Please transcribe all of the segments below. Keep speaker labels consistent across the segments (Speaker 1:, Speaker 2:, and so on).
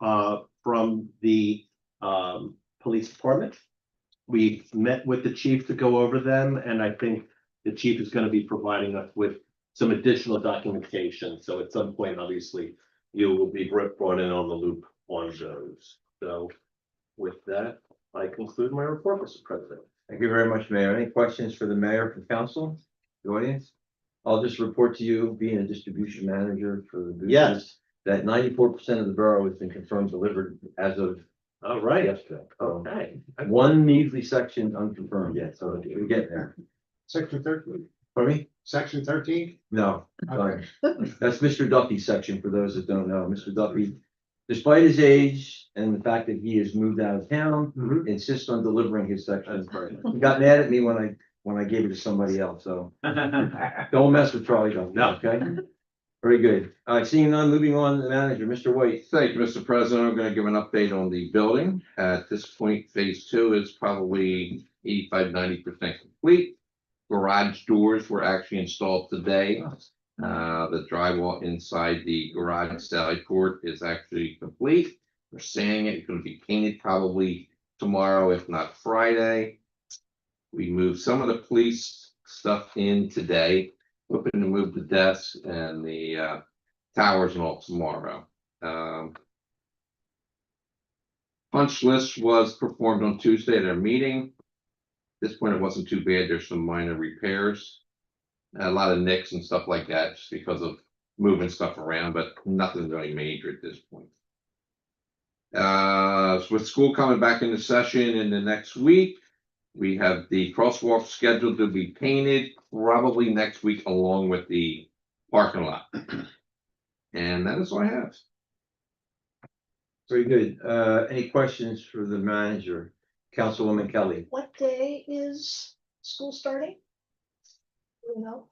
Speaker 1: uh, from the, um, police department. We met with the chief to go over them, and I think the chief is gonna be providing us with some additional documentation, so at some point, obviously, you will be br- brought in on the loop on those. So with that, I conclude my report, Mr. President.
Speaker 2: Thank you very much, Mayor. Any questions for the mayor, for council, the audience? I'll just report to you, being a distribution manager for the. Gooses,
Speaker 1: Yes,
Speaker 2: That ninety-four percent of the borough has been confirmed delivered as of
Speaker 1: all right,
Speaker 2: yesterday. So,
Speaker 1: okay.
Speaker 2: One measly section unconfirmed yet, so we get there.
Speaker 3: Section thirteen,
Speaker 2: For me?
Speaker 3: section thirteen?
Speaker 2: No.
Speaker 3: Okay.
Speaker 2: That's Mr. Duffy's section, for those that don't know. Mr. Duffy, despite his age and the fact that he has moved out of town,
Speaker 3: Mm-hmm.
Speaker 1: Mhm.
Speaker 2: insists on delivering his section.
Speaker 1: right.
Speaker 2: He got mad at me when I, when I gave it to somebody else, so don't mess with Charlie Duffy,
Speaker 1: No.
Speaker 2: okay? Very good. All right, seeing none, moving on, to the manager, Mr. White.
Speaker 4: Thank you, Mr. President. I'm going to give an update on the building. At this point, phase two is probably 85, 90 percent complete. Garage doors were actually installed today. Uh, the drywall inside the garage side court is actually complete. We're sanding it. It's going to be painted probably tomorrow, if not Friday. We moved some of the police stuff in today, hoping to move the desks and the uh towers and all tomorrow. Um. Punch list was performed on Tuesday at our meeting. At This point, it wasn't too bad. There's some minor repairs. A lot of nicks and stuff like that, just because of moving stuff around, but nothing really major at this point. Uh, so with school coming back into session in the next week, we have the crosswalk scheduled to be painted probably next week along with the parking lot. And that is all I have.
Speaker 2: Very good. Uh, any questions for the manager? Councilwoman Kelly,
Speaker 5: What day is school starting? You know,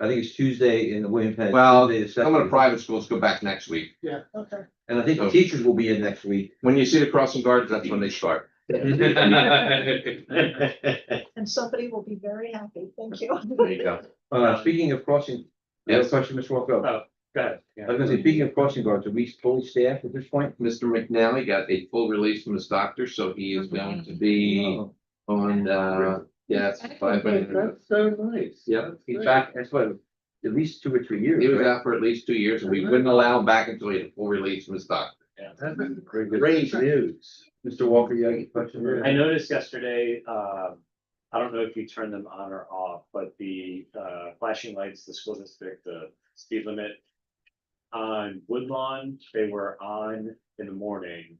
Speaker 2: I think it's Tuesday in the William Penn.
Speaker 4: Well,
Speaker 2: Tuesday the
Speaker 4: Some of the
Speaker 2: second.
Speaker 4: private schools go back next week.
Speaker 5: okay.
Speaker 2: And I think the teachers will be in next week.
Speaker 4: When you see the crossing guards, that's when they start. There
Speaker 5: And somebody will be very happy. Thank you.
Speaker 4: you go.
Speaker 2: Uh, speaking of crossing, you have a
Speaker 4: Yes.
Speaker 2: question, Mr. Walker?
Speaker 1: Oh, Got
Speaker 2: I was gonna say, speaking of crossing guards, are we fully staffed at this point?
Speaker 4: Mr. McNally got a full release from his doctor, so he is going to be
Speaker 2: Oh,
Speaker 4: on, uh, yes, five minutes.
Speaker 1: so nice.
Speaker 4: Yeah,
Speaker 2: He's back, that's what, at least two or three years.
Speaker 4: He was
Speaker 2: right?
Speaker 4: out for at least two years and we wouldn't allow him back until he had a full release from his doctor.
Speaker 2: Very good. news. Mr. Walker, you have any question?
Speaker 6: I noticed yesterday, um, I don't know if you turned them on or off, but the, uh, flashing lights, the school district, the speed limit. On Woodlawn, they were on in the morning,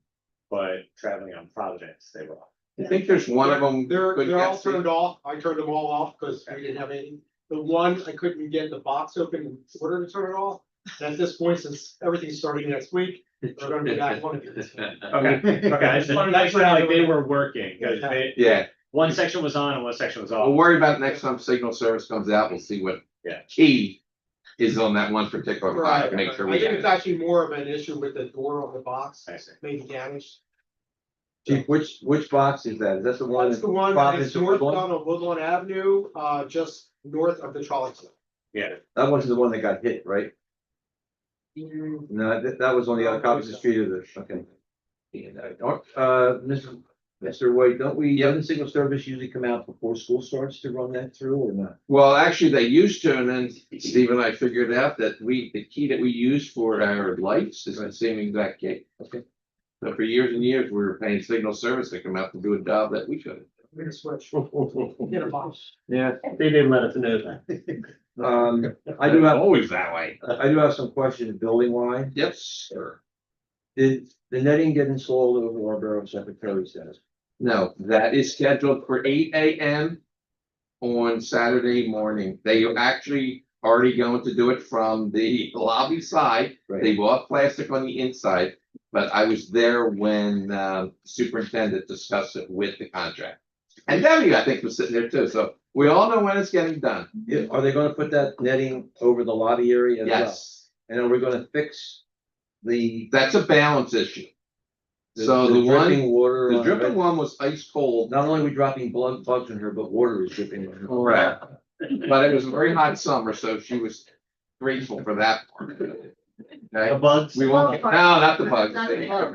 Speaker 6: but traveling on Providence, they were off.
Speaker 4: I think there's one of them.
Speaker 3: They're,
Speaker 4: couldn't
Speaker 3: they're all
Speaker 4: get to-
Speaker 3: turned off. I turned them all off because we didn't have any. The one, I couldn't get the box open in order to turn it off. And At this point, since everything's starting next week, they're gonna be back one of these.
Speaker 6: Okay, okay, I just wanted to make sure like they were working, 'cause they,
Speaker 4: Yeah,
Speaker 6: one section was on and one section was
Speaker 4: we'll
Speaker 6: off.
Speaker 4: worry about it next time signal service comes out. We'll see what
Speaker 6: Yeah.
Speaker 4: key is on that one particular
Speaker 3: Right,
Speaker 4: product,
Speaker 3: right.
Speaker 4: make
Speaker 3: I
Speaker 4: sure we
Speaker 3: think
Speaker 4: have.
Speaker 3: it's actually more of an issue with the door on the box
Speaker 6: I see.
Speaker 3: being damaged.
Speaker 2: Chief, which, which box is that? Is that the one?
Speaker 3: That's
Speaker 2: that-
Speaker 3: the one,
Speaker 2: Providence
Speaker 3: it's
Speaker 2: and
Speaker 3: northbound on Woodlawn Avenue, uh, just north of the trolley. stop.
Speaker 6: Yeah,
Speaker 2: That was the one that got hit, right? No, that, that was on the other opposite street of the, okay. Yeah, no, don't- Uh, Mr. Mr. White, don't we, doesn't signal service usually come out before school starts to run that through or not?
Speaker 4: Well, actually, they used to, and then Steve and I figured out that we, the key that we use for our lights is the same exact key.
Speaker 2: Okay.
Speaker 4: So for years and years, we were paying signal service to come out and do a job that we couldn't.
Speaker 3: We're gonna switch,
Speaker 1: They
Speaker 3: get a box.
Speaker 2: Yeah.
Speaker 1: didn't let us know that.
Speaker 2: Um, I do have,
Speaker 4: Always that way.
Speaker 2: I do have some questions building wise.
Speaker 4: Yes, sir.
Speaker 2: Did the netting get installed over our borough secretary's desk?
Speaker 4: No, that is scheduled for eight AM on Saturday morning. They are actually already going to do it from the lobby side. They
Speaker 2: Right,
Speaker 4: bought plastic on the inside, but I was there when um, superintendent discussed it with the contract. And Debbie, I think, was sitting there too, so we all know when it's getting done.
Speaker 2: Yeah, are they gonna put that netting over the lobby area as well?
Speaker 4: Yes,
Speaker 2: And are we gonna fix the?
Speaker 4: that's a balance issue. So the one,
Speaker 2: dripping Water.
Speaker 4: the
Speaker 2: on
Speaker 4: dripping one was ice cold,
Speaker 2: Not only are we dropping blood bugs in her, but water is dripping. in her.
Speaker 4: Correct. but it was a very hot summer, so she was grateful for that part.
Speaker 1: The
Speaker 4: Okay,
Speaker 1: bugs.
Speaker 4: we won't, no, not the bugs.